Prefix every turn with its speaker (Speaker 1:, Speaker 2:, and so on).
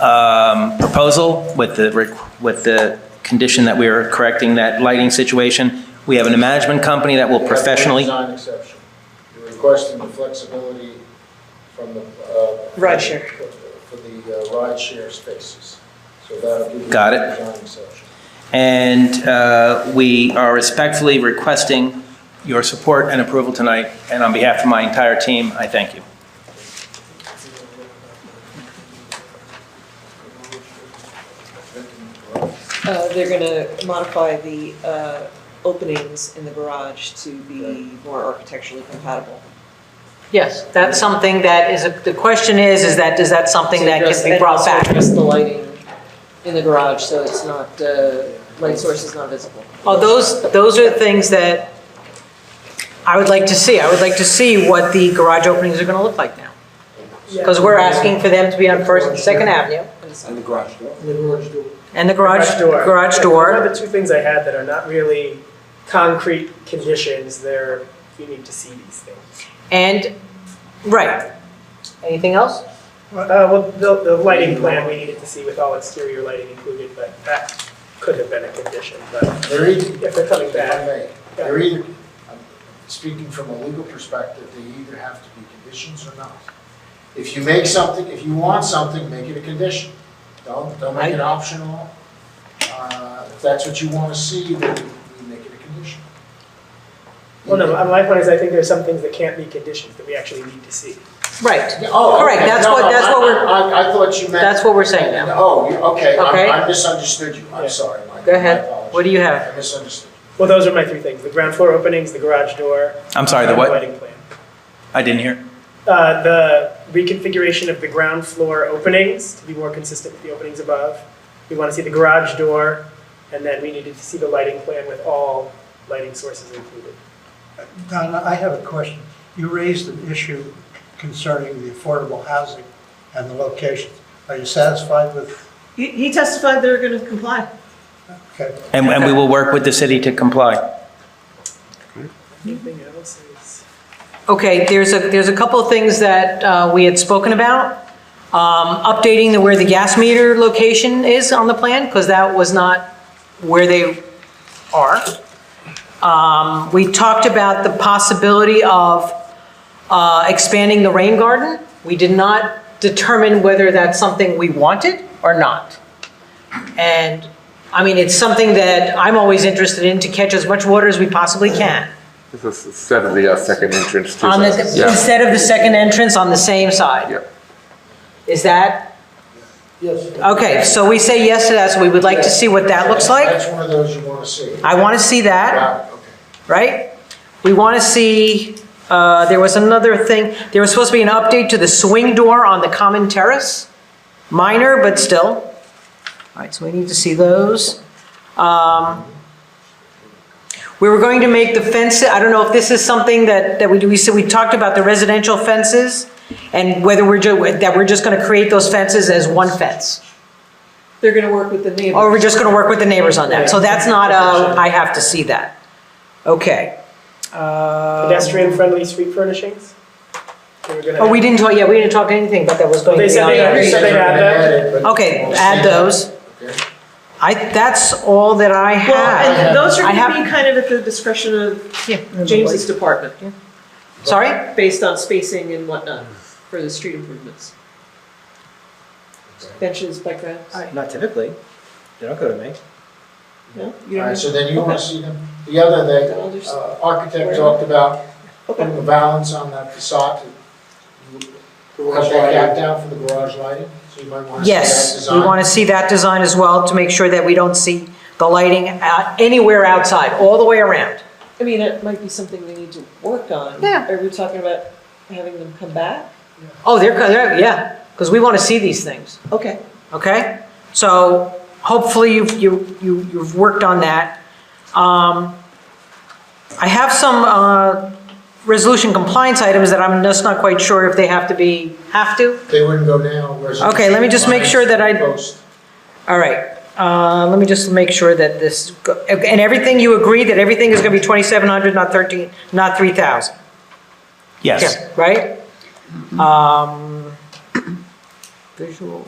Speaker 1: um, proposal with the, requ- with the condition that we are correcting that lighting situation. We have a management company that will professionally.
Speaker 2: You have one Design exception. You're requesting the flexibility from the. uh,
Speaker 3: Ride share.
Speaker 2: For the uh, ride share spaces. So that'll give you.
Speaker 1: Got
Speaker 2: the
Speaker 1: it.
Speaker 2: Design exception.
Speaker 1: And uh, we are respectfully requesting your support and approval tonight, and on behalf of my entire team, I thank you.
Speaker 3: Uh, They're going to modify the uh, openings in the garage to be more architecturally compatible.
Speaker 4: Yes, that's something that is, a- the question is, is that, is that something that can be brought
Speaker 3: And also
Speaker 4: back?
Speaker 3: address the lighting in the garage, so it's not, uh, light source is not visible.
Speaker 4: Well, Oh, those, those are things that I would like to see. I would like to see what the garage openings are going to look like now. Because we're asking for them to be on First and Second Avenue,
Speaker 5: And the garage door.
Speaker 6: The garage door.
Speaker 4: and the garage,
Speaker 6: Garage door.
Speaker 4: garage
Speaker 6: One
Speaker 4: door.
Speaker 6: of the two things I had that are not really concrete conditions, they're, you need to see these things.
Speaker 4: And, right. Anything else?
Speaker 6: Uh, well, the, the lighting plan, we needed to see with all exterior lighting included, but that could have been a condition, but
Speaker 2: They're either,
Speaker 6: if they're coming
Speaker 2: if I
Speaker 6: back.
Speaker 2: may, they're either, I'm speaking from a legal perspective, they either have to be conditions or not. If you make something, if you want something, make it a condition. Don't, don't make it optional. Uh, If that's what you want to see, then we make it a condition.
Speaker 6: Well, no, my point is I think there's some things that can't be conditions that we actually need to see.
Speaker 4: Right.
Speaker 2: Yeah, Oh,
Speaker 4: Correct,
Speaker 2: okay.
Speaker 4: that's
Speaker 2: No,
Speaker 4: what-
Speaker 2: no,
Speaker 4: that's what
Speaker 2: I-
Speaker 4: we're-
Speaker 2: I, I thought you meant.
Speaker 4: That's what we're saying now.
Speaker 2: Oh, you- okay,
Speaker 4: Okay.
Speaker 2: I I misunderstood you, I'm
Speaker 6: Yeah.
Speaker 2: sorry, Mike.
Speaker 4: Go ahead. What do you have?
Speaker 2: I misunderstood.
Speaker 6: Well, those are my three things, the ground floor openings, the garage door.
Speaker 1: I'm sorry, the
Speaker 6: and
Speaker 1: what?
Speaker 6: Lighting plan.
Speaker 1: I didn't hear.
Speaker 6: Uh, the reconfiguration of the ground floor openings to be more consistent with the openings above. We want to see the garage door, and then we needed to see the lighting plan with all lighting sources included.
Speaker 7: Donna, I have a question. You raised an issue concerning the affordable housing and the locations. Are you satisfied with,
Speaker 8: He he testified they're going to comply.
Speaker 7: okay,
Speaker 1: And, and we will work with the city to comply.
Speaker 6: Anything else is?
Speaker 4: Okay, there's a, there's a couple of things that uh, we had spoken about. Um, Updating the, where the gas meter location is on the plan, because that was not where they are. Um, We talked about the possibility of uh, expanding the rain garden. We did not determine whether that's something we wanted or not. And, I mean, it's something that I'm always interested in, to catch as much water as we possibly can.
Speaker 9: This is instead of the uh, second entrance to
Speaker 4: On
Speaker 9: the-
Speaker 4: the,
Speaker 9: Yeah,
Speaker 4: instead of the second entrance on the same side?
Speaker 9: yeah.
Speaker 4: Is that,
Speaker 2: Yes.
Speaker 4: okay, so we say yes to that, so we would like to see what that looks like.
Speaker 2: That's one of those you want to see.
Speaker 4: I want to see that,
Speaker 2: Got it, okay.
Speaker 4: right? We want to see, uh, there was another thing, there was supposed to be an update to the swing door on the common terrace. Minor, but still. All right, so we need to see those. Um, We were going to make the fence, I don't know if this is something that, that we do, we said, we talked about the residential fences and whether we're, ju- that we're just going to create those fences as one fence.
Speaker 3: They're going to work with the neighbors.
Speaker 4: Or we're just gonna work with the neighbors on that, so that's not a, I have to see that. Okay. Uh, Um,
Speaker 6: Pedestrian-friendly street furnishings? They were gonna
Speaker 4: Oh, we didn't talk, yeah, we didn't talk anything, but that was going to
Speaker 6: They
Speaker 4: be
Speaker 6: said
Speaker 4: on
Speaker 6: they
Speaker 4: there.
Speaker 6: agree.
Speaker 2: You said
Speaker 6: they
Speaker 2: you were
Speaker 6: add
Speaker 2: gonna
Speaker 6: that?
Speaker 2: add it, but
Speaker 4: Okay,
Speaker 2: we'll
Speaker 4: add
Speaker 2: see that.
Speaker 4: those.
Speaker 2: Okay.
Speaker 4: I, that's all that I
Speaker 8: Well,
Speaker 4: have.
Speaker 8: and those are
Speaker 4: I
Speaker 8: going
Speaker 4: have-
Speaker 8: to be kind of at the discretion of James's department,
Speaker 4: Sorry?
Speaker 8: based on spacing and whatnot for the street improvements. Benches, bike racks.
Speaker 1: Not typically. They don't go to me.
Speaker 8: No? You
Speaker 2: All
Speaker 8: don't
Speaker 2: right,
Speaker 8: need-
Speaker 2: so then you want to
Speaker 8: Okay.
Speaker 2: see them. The other
Speaker 8: Then I'll
Speaker 2: thing,
Speaker 8: just-
Speaker 2: uh, architect talked about
Speaker 8: Okay.
Speaker 2: putting a balance on that facade. to Cut
Speaker 5: Garage
Speaker 2: that
Speaker 5: lighting.
Speaker 2: gap down for the garage lighting, so you might want to see that
Speaker 4: Yes,
Speaker 2: design.
Speaker 4: we wanna see that design as well, to make sure that we don't see the lighting uh, anywhere outside, all the way around.
Speaker 3: I mean, it might be something we need to work on.
Speaker 4: Yeah.
Speaker 3: Are we talking about having them come back?
Speaker 4: Oh, they're, co- they're, yeah, because we wanna see these things.
Speaker 3: Okay.
Speaker 4: okay? So hopefully you've, you, you- you've worked on that. Um, I have some uh, resolution compliance items that I'm just not quite sure if they have to be, have to.
Speaker 2: They wouldn't go now. whereas-
Speaker 4: Okay, let me just make sure that I-
Speaker 2: Post.
Speaker 4: All right, uh, let me just make sure that this, go- and everything, you agree that everything is going to be 2,700, not 13, not 3,000?
Speaker 1: Yes.
Speaker 4: Yeah, Right? Um, Visual